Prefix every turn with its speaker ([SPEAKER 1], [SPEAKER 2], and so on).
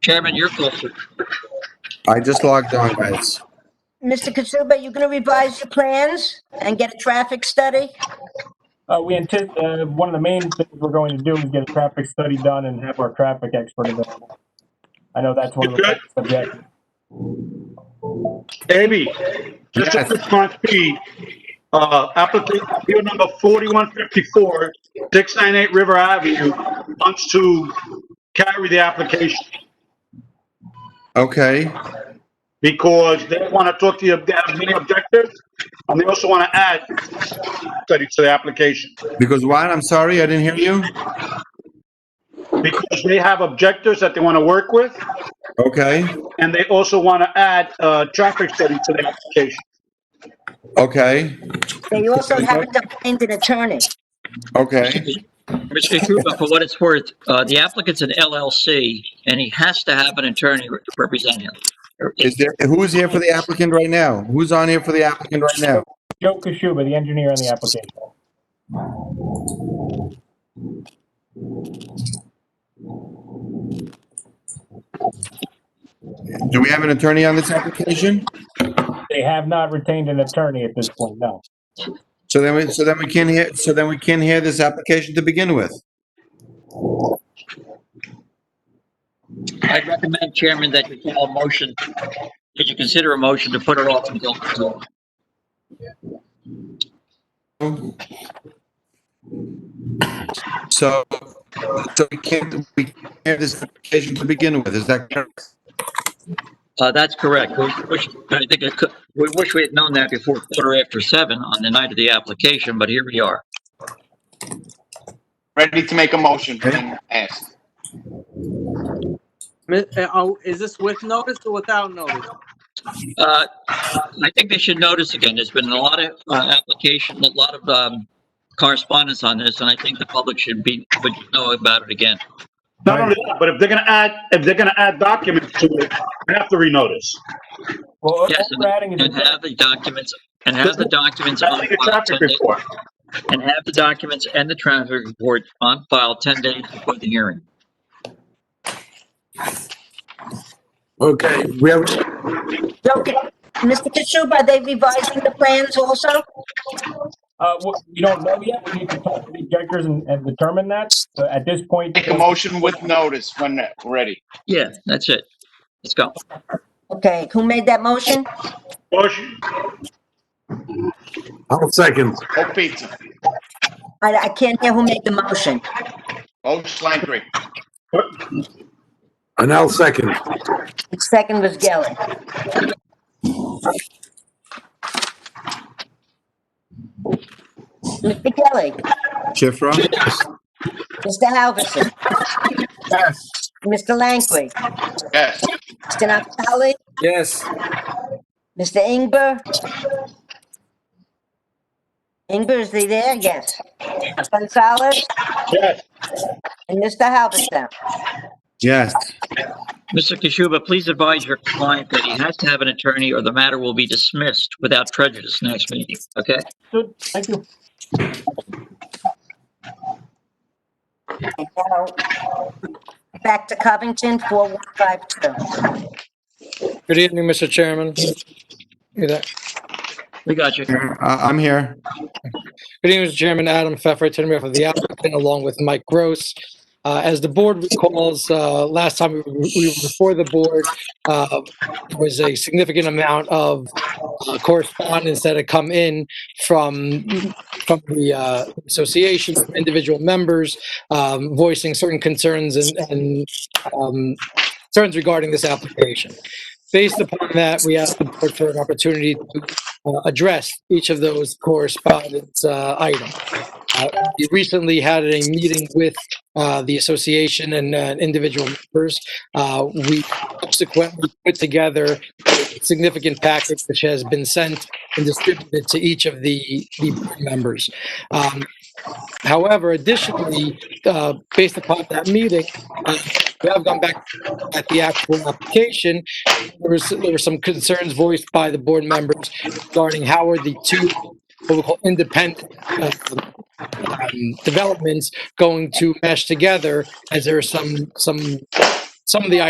[SPEAKER 1] Chairman, you're closer.
[SPEAKER 2] I just logged on, guys.
[SPEAKER 3] Mr. Katsuba, you gonna revise the plans and get a traffic study?
[SPEAKER 4] Uh, we anti- uh, one of the main things we're going to do is get a traffic study done and have our traffic expert available. I know that's one of the subjects.
[SPEAKER 5] Abby, just a
[SPEAKER 2] Yes.
[SPEAKER 5] quick one, P. Uh, applicant, appeal number 4154, 698 River Avenue, wants to carry the application
[SPEAKER 2] Okay,
[SPEAKER 5] because they want to talk to you, they have many objectives, and they also want to add study to the application.
[SPEAKER 2] because what? I'm sorry, I didn't hear you.
[SPEAKER 5] Because they have objectives that they want to work with,
[SPEAKER 2] Okay,
[SPEAKER 5] and they also want to add, uh, traffic study to the application.
[SPEAKER 2] okay,
[SPEAKER 3] They also haven't obtained an attorney.
[SPEAKER 2] okay.
[SPEAKER 1] Mr. Krupa, for what it's worth, uh, the applicant's an LLC, and he has to have an attorney re- representing him.
[SPEAKER 2] Is there, who is here for the applicant right now? Who's on here for the applicant right now?
[SPEAKER 4] Joe Kashuba, the engineer on the application.
[SPEAKER 2] Do we have an attorney on this application?
[SPEAKER 4] They have not retained an attorney at this point, no.
[SPEAKER 2] So then we, so then we can hear, so then we can hear this application to begin with.
[SPEAKER 1] I'd recommend, Chairman, that you call a motion, that you consider a motion to put it off until, until-
[SPEAKER 2] So, so we can't, we can't hear this application to begin with, is that correct?
[SPEAKER 1] uh, that's correct. We wish, I think it could, we wish we had known that before quarter after seven on the night of the application, but here we are.
[SPEAKER 6] Ready to make a motion when asked.
[SPEAKER 7] Mi- uh, Oh, is this with notice or without notice?
[SPEAKER 1] Uh, I think they should notice again, there's been a lot of, uh, application, a lot of, um, correspondence on this, and I think the public should be, would know about it again.
[SPEAKER 5] Not only that, but if they're gonna add, if they're gonna add documents to it, they have to renotice.
[SPEAKER 4] Well, all
[SPEAKER 1] Yes,
[SPEAKER 4] we're adding is,
[SPEAKER 1] and have the documents, and have the documents on
[SPEAKER 5] That's like a
[SPEAKER 1] file
[SPEAKER 5] traffic
[SPEAKER 1] 10 days,
[SPEAKER 5] report.
[SPEAKER 1] and have the documents and the traffic report on file 10 days before the hearing.
[SPEAKER 2] Okay, we have,
[SPEAKER 3] Okay, Mr. Katsuba, are they revising the plans also?
[SPEAKER 4] uh, what- we don't know yet. We need to talk to the objectors and, and determine that. But at this point.
[SPEAKER 6] Make a motion with notice when ready.
[SPEAKER 1] Yeah, that's it. Let's go.
[SPEAKER 3] Okay, who made that motion?
[SPEAKER 5] Motion,
[SPEAKER 8] I'll second.
[SPEAKER 6] Hope Pizza,
[SPEAKER 3] I, I can't hear who made the motion.
[SPEAKER 6] Hope Schlangery,
[SPEAKER 8] And I'll second.
[SPEAKER 3] The second was Gelli. Mr. Gelli,
[SPEAKER 2] Shifra?
[SPEAKER 3] Mr. Halverson. Mr. Langley,
[SPEAKER 6] yes.
[SPEAKER 3] Mr. Natale,
[SPEAKER 8] Yes.
[SPEAKER 3] Mr. Ingber? Ingber, is he there? Yes. Gonzalez
[SPEAKER 5] yes.
[SPEAKER 3] and Mr. Halverson.
[SPEAKER 2] Yes,
[SPEAKER 1] Mr. Kishuba, please advise your client that he has to have an attorney or the matter will be dismissed without prejudice next meeting, okay?
[SPEAKER 4] Good, Thank you.
[SPEAKER 3] And now, Back to Covington, 4152.
[SPEAKER 9] Good evening, Mr. Chairman. Good uh,
[SPEAKER 1] We got you.
[SPEAKER 2] I, Uh, I'm here.
[SPEAKER 9] good evening, Mr. Chairman. Adam Pfeffer, attorney for the applicant, along with Mike Gross. Uh, As the board recalls, uh, last time we were we were before the board, uh, there was a significant amount of uh, correspondence that had come in from, from the uh, association, from individual members um, voicing certain concerns and- and um, concerns regarding this application. Based upon that, we asked the board for an opportunity to uh, address each of those correspondence uh, items. Uh, We recently had a meeting with uh, the association and uh, individual members. Uh, We subsequently put together a significant package which has been sent and distributed to each of the the members. Um, However, additionally, uh, based upon that meeting, uh, we have gone back at the actual application. There was, there were some concerns voiced by the board members regarding how are the two what we call independent uh, um, developments going to mesh together as there are some, some, some of the